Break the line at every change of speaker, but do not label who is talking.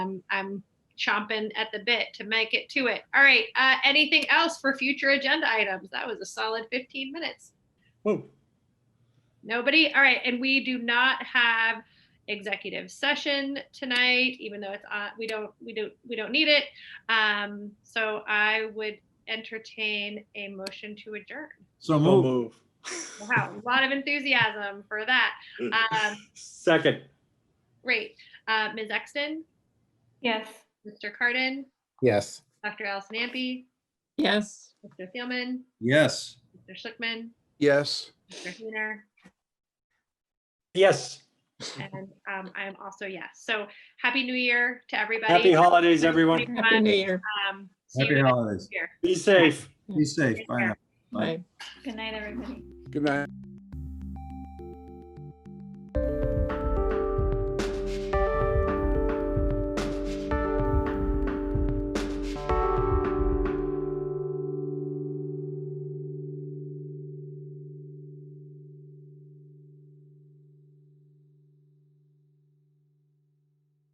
I'm I'm chomping at the bit to make it to it. All right. Uh, anything else for future agenda items? That was a solid 15 minutes.
Whoa,
Nobody? All right. And we do not have executive session tonight, even though it's on, we don't, we don't, we don't need it. Um, so I would entertain a motion to adjourn.
So
no
move.
move.
Wow, a lot of enthusiasm for that. Um,
Second,
great. Uh, Ms. Exton,
Yes.
Mr. Cardin,
Yes.
Dr. Allison Ampe,
Yes.
Mr. Thielman,
Yes.
Mr. Schlickman,
Yes.
Mr. Hayner,
yes.
and um, I am also yes. So happy New Year to everybody.
Happy holidays, everyone.
Happy New Year.
Um, see you
Happy
next
holidays.
year.
Be safe.
Be safe. Bye now.
Bye. Good night, everybody.
Good night.